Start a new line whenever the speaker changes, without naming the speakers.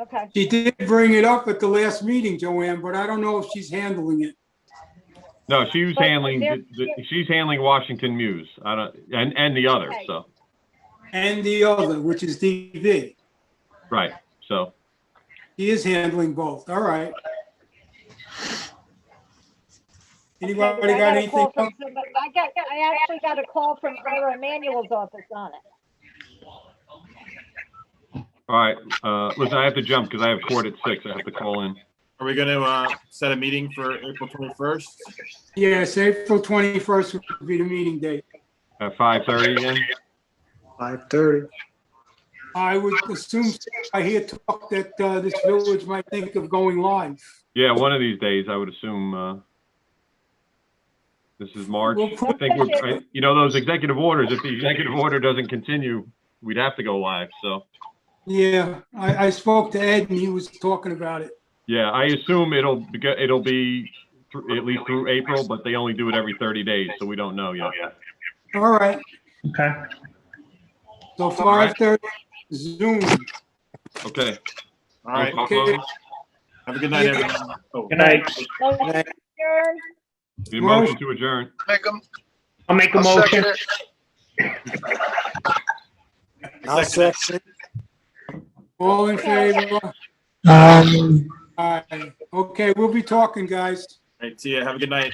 Okay,
She did bring it up at the last meeting, Joanne, but I don't know if she's handling it.
No, she was
But
handling,
there-
the- the- she's handling Washington Muse, I don't, and, and the others,
Right.
so,
And the other, which is DV.
right, so.
He is handling both. All right.
Okay,
Anybody
I
got
a
anything?
call from
else?
somebody- I got, I actually got a call from Ira Emanuel's office on it.
All right, uh, listen, I have to jump because I have court at six. I have to call in.
Are we going to uh, set a meeting for April 21st?
Yes, April 21st would be the meeting date.
At five thirty again?
Five thirty.
I would assume, I hear talk that uh, this village might think of going live.
Yeah, one of these days, I would assume, uh, this is March.
We'll
I think we're, I- you know, those executive orders, if the executive order doesn't continue, we'd have to go live, so.
Yeah, I, I spoke to Ed and he was talking about it.
Yeah, I assume it'll, be- it'll be thr- at least through April, but they only do it every thirty days, so we don't know yet.
All right,
Okay.
so 5:30 Zoom.
Okay.
All right.
Roll call vote.
Have a good night, everyone. Oh,
Good night.
Motion adjourned.
Need a motion to adjourn.
Make them,
I'll make a
I'll
motion.
second it.
I'll second. it.
All in favor?
Um.
Aye. Okay, we'll be talking, guys.
all right, see you. Have a good night.